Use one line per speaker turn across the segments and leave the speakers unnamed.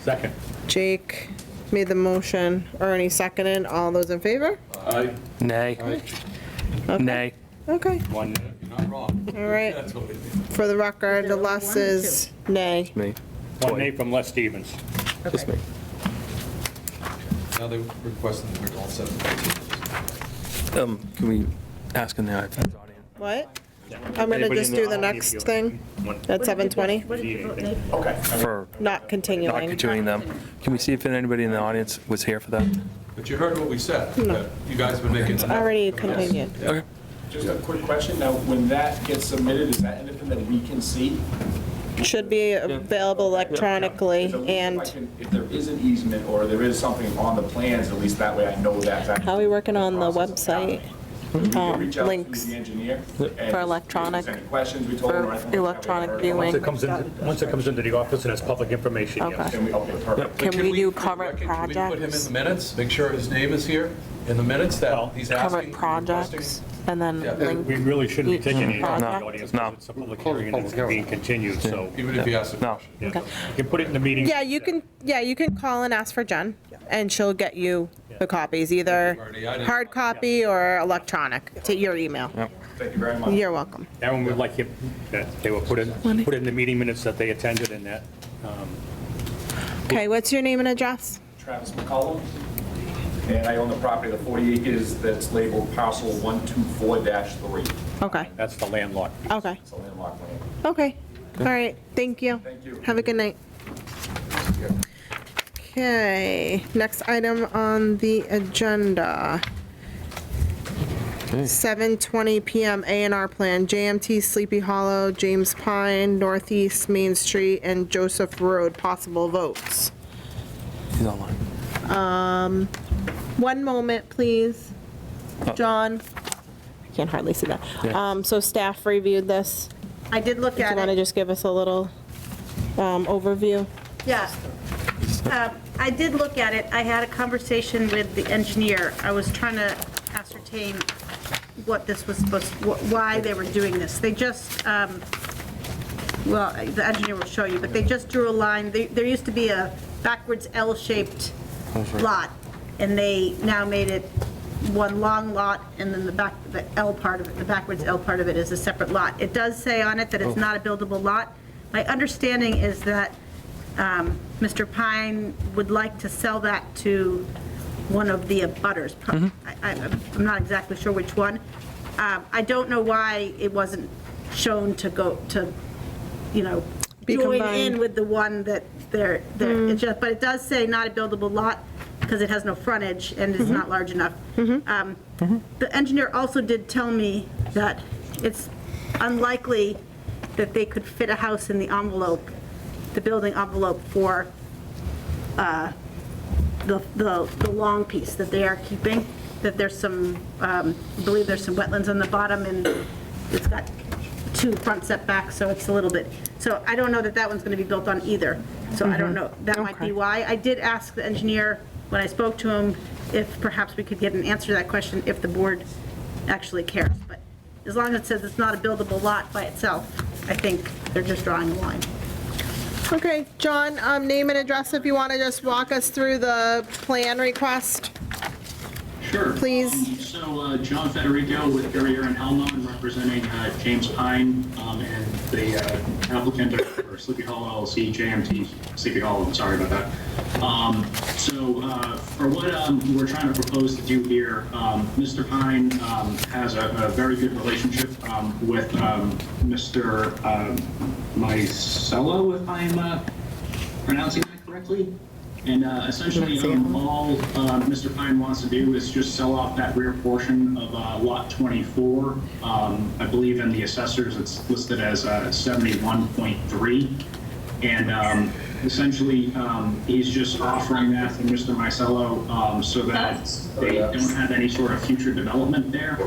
Second.
Jake made the motion. Ernie seconded. All those in favor?
Aye.
Nay. Nay.
Okay,
One.
You're not wrong.
all right.
That's what it is.
For the record, the less is nay.
Me.
One nay from Les Stevens.
Just me.
Now they're requesting that we're all set.
Um, can we ask in the iPad audience?
What? I'm gonna just do the next thing at 7:20,
What did you vote, Dave?
For
not
not
continuing.
continuing them. Can we see if anybody in the audience was here for that?
But you heard what we said,
No.
that you guys have been making. It's
Already continued.
Okay.
Just a quick question, now, when that gets submitted, is that anything that we can see?
Should be available electronically
Is it- if I
and
can- If there is an easement or there is something on the plans, at least that way I know that's actually.
How are we working on the
process that's
website?
happening. We can
Um,
reach out to
links
the engineer and if there's
electronic-
Any questions, we told
for
them. right, and we
electronic
covered it.
viewing.
Once it comes in, once it comes into the office and it's public information, yes.
Okay.
And we, okay, perfect.
Can we do current
current Can we put him in
projects?
the minutes, make sure his name is here in the minutes that he's asking?
current projects and then
Yeah.
link.
We really shouldn't be taking any from the
No,
audience.
no.
because It's a public hearing and it's being continued, so.
requesting, Even if he asks a
No.
question.
yeah. You can put it in the meeting.
Yeah, you can, yeah, you can call and ask for Jen and she'll get you the copies, either
Already, I didn't-
hard copy or electronic to your email.
Thank you very much.
You're welcome.
Aaron would like you, that they were put in, put in the meeting minutes that they attended and that. um,
Okay, what's your name and address?
Travis McCollum, and I own the property, the 40 acres that's labeled parcel 124-3.
Okay,
That's the landlord.
okay,
It's a landlocked land.
okay. All right, thank you.
Thank you.
Have a good night. Okay, next item on the agenda. 7:20 PM A and R Plan, JMT Sleepy Hollow, James Pine, Northeast Main Street, and Joseph Road, possible votes.
He's online.
One moment, please. John? Uh, I can hardly see that.
Yeah.
Um, So staff reviewed this. I did look at it. Do you want to just give us a little um, overview?
Yeah. Uh, I did look at it. I had a conversation with the engineer. I was trying to ascertain what this was supposed, wh- why they were doing this. They just, um, well, the engineer will show you, but they just drew a line. They- There used to be a backwards L-shaped lot, and they now made it one long lot, and then the back, the L part of it, the backwards L part of it is a separate lot. It does say on it that it's not a buildable lot. My understanding is that um, Mr. Pine would like to sell that to one of the abutters. pro-
Mm-hmm.
I- I- I'm not exactly sure which one. Um, I don't know why it wasn't shown to go, to, you know,
Be
join
combined.
in with the one that they're, they're- it just- but it does say not a buildable lot because it has no frontage and
Mm-hmm.
is not large enough. Um, The engineer also did tell me that it's unlikely that they could fit a house in the envelope, the building envelope for the, the, the long piece that they are keeping, that there's some, um, I believe there's some wetlands on the bottom, and it's got two front setbacks, so it's a little bit, so I don't know that that one's gonna be built on either, so I don't know, that might be why. I did ask the engineer, when I spoke to him, if perhaps we could get an answer to that question, if the board actually cares, but as long as it says it's not a buildable lot by itself, I think they're just drawing a line.
Okay, John, um, name and address if you want to just walk us through the plan request.
Sure.
Please.
Um, So uh, John Federico with Guerrier and Helma, and representing uh, James Pine um, and the uh, applicant for Sleepy Hollow LLC, JMT Sleepy Hollow, I'm sorry about that. Um, So uh, for what um, we're trying to propose to do here, um, Mr. Pine um, has a a very good relationship um, with um, Mr. um, Micello, if I'm uh, pronouncing that correctly. And uh, essentially, um, all uh, Mr. Pine wants to do is just sell off that rear portion of uh, Lot 24. Um, I believe in the assessors, it's listed as uh, 71.3. And um, essentially, um, he's just offering that to Mr. Micello um, so that they don't have any sort of future development there.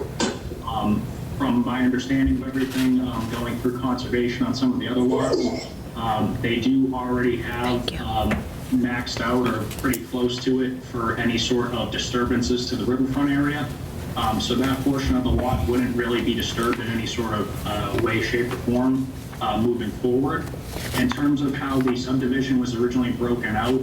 Um, From my understanding of everything, um, going through conservation on some of the other lots, um, they do already have um, maxed out or pretty close to it for any sort of disturbances to the riverfront area. Um, So that portion of the lot wouldn't really be disturbed in any sort of uh, way, shape, or form uh, moving forward. In terms of how the subdivision was originally broken out,